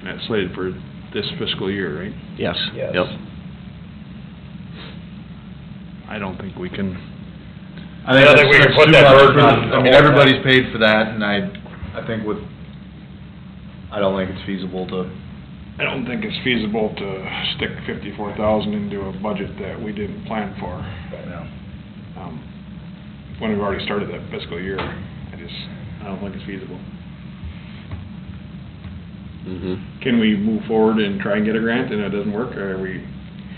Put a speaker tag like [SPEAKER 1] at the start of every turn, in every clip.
[SPEAKER 1] And that's slated for this fiscal year, right?
[SPEAKER 2] Yes.
[SPEAKER 3] Yes.
[SPEAKER 2] Yep.
[SPEAKER 1] I don't think we can,
[SPEAKER 4] I think
[SPEAKER 3] I don't
[SPEAKER 4] that's
[SPEAKER 3] think we can
[SPEAKER 4] that's
[SPEAKER 3] put
[SPEAKER 4] too
[SPEAKER 3] that
[SPEAKER 4] much
[SPEAKER 3] burden
[SPEAKER 4] for
[SPEAKER 3] on
[SPEAKER 4] the- I mean,
[SPEAKER 3] the whole-
[SPEAKER 4] everybody's paid for that, and I, I think with, I don't think it's feasible to,
[SPEAKER 1] I don't think it's feasible to stick fifty-four thousand into a budget that we didn't plan for,
[SPEAKER 4] you know.
[SPEAKER 1] um, when we've already started that fiscal year. I just, I don't think it's feasible.
[SPEAKER 5] Mm-hmm.
[SPEAKER 2] Mhm.
[SPEAKER 1] Can we move forward and try and get a grant and it doesn't work, or are we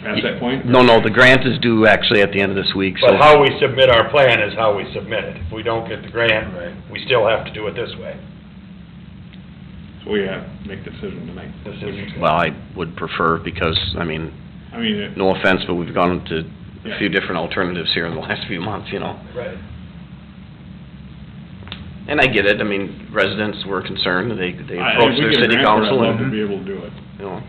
[SPEAKER 1] past that point?
[SPEAKER 2] No, no, the grant is due actually at the end of this week, so.
[SPEAKER 3] But how we submit our plan is how we submit it. If we don't get the grant, we still have to do it this way.
[SPEAKER 1] So we have to make the decision tonight.
[SPEAKER 3] This is.
[SPEAKER 2] Well, I would prefer, because, I mean,
[SPEAKER 1] I mean, it-
[SPEAKER 2] no offense, but we've gone to a few different alternatives here in the last few months, you know?
[SPEAKER 3] Right.
[SPEAKER 2] And I get it, I mean, residents were concerned, they, they
[SPEAKER 1] I-
[SPEAKER 2] approached their
[SPEAKER 1] If we get a
[SPEAKER 2] city council
[SPEAKER 1] grant for it, I'd love to
[SPEAKER 2] and,
[SPEAKER 1] be able to do it.
[SPEAKER 2] you know,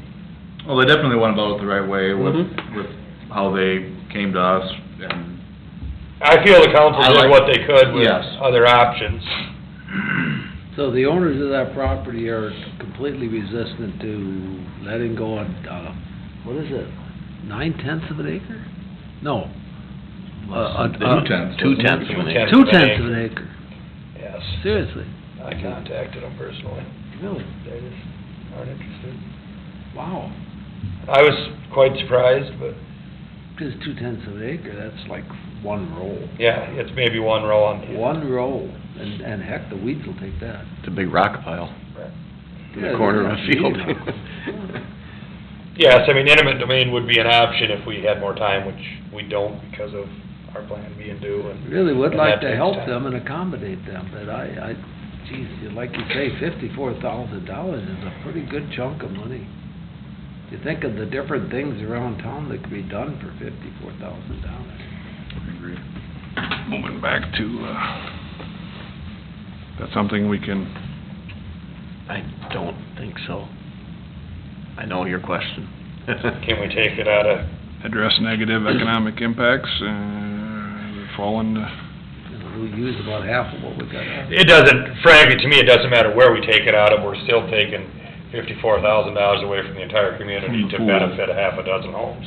[SPEAKER 4] Well, they definitely went about it the right way with,
[SPEAKER 1] Mm-hmm.
[SPEAKER 2] Mhm.
[SPEAKER 4] with how they came to us, and
[SPEAKER 3] I feel the council
[SPEAKER 4] I
[SPEAKER 3] did
[SPEAKER 4] like-
[SPEAKER 3] what they could with
[SPEAKER 4] Yes.
[SPEAKER 3] other options.
[SPEAKER 5] So the owners of that property are completely resistant to letting go on, uh, what is it? Nine tenths of an acre? No. Uh, uh, uh,
[SPEAKER 4] two tenths.
[SPEAKER 2] two tenths of an acre.
[SPEAKER 5] Two tenths of an acre,
[SPEAKER 3] Yes.
[SPEAKER 5] seriously,
[SPEAKER 3] I contacted them personally.
[SPEAKER 5] really,
[SPEAKER 3] They just aren't interested.
[SPEAKER 5] wow.
[SPEAKER 3] I was quite surprised, but
[SPEAKER 5] Cause two tenths of an acre, that's like one roll,
[SPEAKER 3] yeah, it's maybe one row on.
[SPEAKER 5] one roll, and, and heck, the weeds will take that.
[SPEAKER 2] it's a big rock pile in
[SPEAKER 5] Yeah,
[SPEAKER 2] the corner of a
[SPEAKER 5] yeah,
[SPEAKER 2] field.
[SPEAKER 3] Yes, I mean, intimate domain would be an option if we had more time, which we don't because of our plan being due and.
[SPEAKER 5] Really would
[SPEAKER 3] and
[SPEAKER 5] like
[SPEAKER 3] that
[SPEAKER 5] to
[SPEAKER 3] takes
[SPEAKER 5] help
[SPEAKER 3] time.
[SPEAKER 5] them and accommodate them, but I, I, geez, you- like you say, fifty-four thousand dollars is a pretty good chunk of money. You think of the different things around town that could be done for fifty-four thousand dollars.
[SPEAKER 4] Agree.
[SPEAKER 1] Moving back to, uh, that's something we can,
[SPEAKER 2] I don't think so. I know your question.
[SPEAKER 3] Can we take it out of,
[SPEAKER 1] address negative economic impacts, uh, fall into,
[SPEAKER 5] You know, we use about half of what we got. out.
[SPEAKER 3] it doesn't, frankly, to me, it doesn't matter where we take it out of, we're still taking fifty-four thousand dollars away from the entire community
[SPEAKER 1] From the
[SPEAKER 3] to
[SPEAKER 1] pool.
[SPEAKER 3] benefit a half a dozen homes.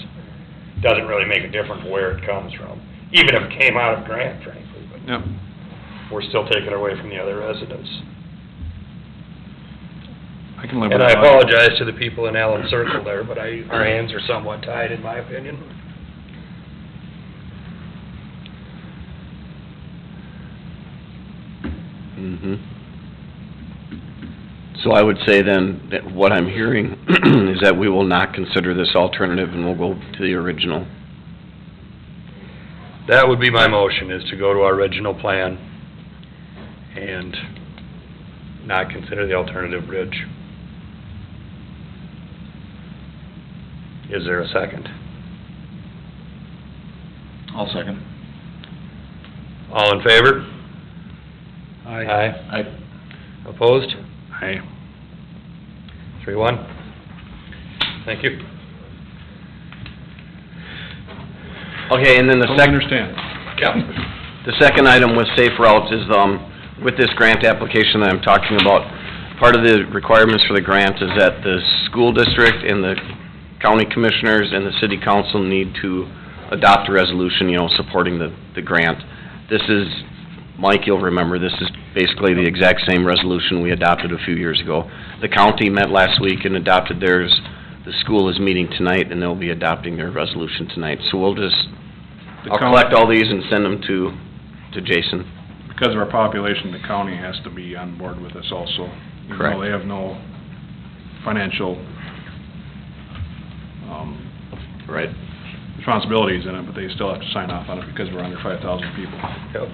[SPEAKER 3] Doesn't really make a difference where it comes from, even if it came out of grant, frankly, but
[SPEAKER 1] yep.
[SPEAKER 3] we're still taking away from the other residents.
[SPEAKER 1] I can live with
[SPEAKER 3] And I
[SPEAKER 1] that.
[SPEAKER 3] apologize to the people in Allen Circle there, but I, our hands are somewhat tied, in my opinion.
[SPEAKER 2] hmm So I would say then, that what I'm hearing is that we will not consider this alternative and we'll go to the original.
[SPEAKER 3] That would be my motion, is to go to our original plan and not consider the alternative bridge. Is there a second?
[SPEAKER 4] I'll second.
[SPEAKER 3] All in favor?
[SPEAKER 5] I,
[SPEAKER 3] Aye.
[SPEAKER 4] I,
[SPEAKER 3] Opposed?
[SPEAKER 1] Aye.
[SPEAKER 3] Three, one. Thank you.
[SPEAKER 2] Okay, and then the
[SPEAKER 1] Totally
[SPEAKER 2] second,
[SPEAKER 1] understand.
[SPEAKER 2] the second item with safe routes is, um, with this grant application that I'm talking about, part of the requirements for the grant is that the school district and the county commissioners and the city council need to adopt a resolution, you know, supporting the, the grant. This is, Mike, you'll remember, this is basically the exact same resolution we adopted a few years ago. The county met last week and adopted theirs. The school is meeting tonight, and they'll be adopting their resolution tonight. So we'll just
[SPEAKER 1] The
[SPEAKER 2] I'll
[SPEAKER 1] coun-
[SPEAKER 2] collect all these and send them to, to Jason.
[SPEAKER 1] Because of our population, the county has to be on board with us also. even though
[SPEAKER 2] Correct.
[SPEAKER 1] they have no financial, um,
[SPEAKER 2] Right.
[SPEAKER 1] responsibilities in it, but they still have to sign off on it because we're under five thousand people.
[SPEAKER 3] Yep.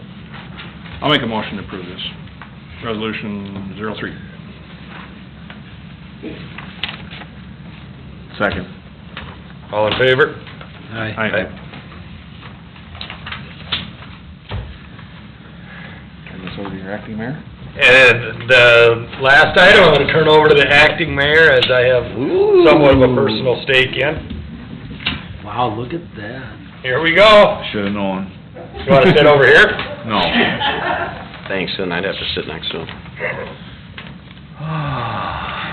[SPEAKER 1] I'll make a motion to approve this. Resolution zero three.
[SPEAKER 2] Second.
[SPEAKER 3] All in favor?
[SPEAKER 5] I,
[SPEAKER 1] Aye. Turn this over to your acting mayor.
[SPEAKER 3] And the last item, I'm gonna turn over to the acting mayor, as I have somewhat of a personal stake in.
[SPEAKER 5] wow, look at that.
[SPEAKER 3] Here we go.
[SPEAKER 4] should've known.
[SPEAKER 3] You wanna sit over here?
[SPEAKER 4] No.
[SPEAKER 2] Thanks, and I'd have to sit next to him.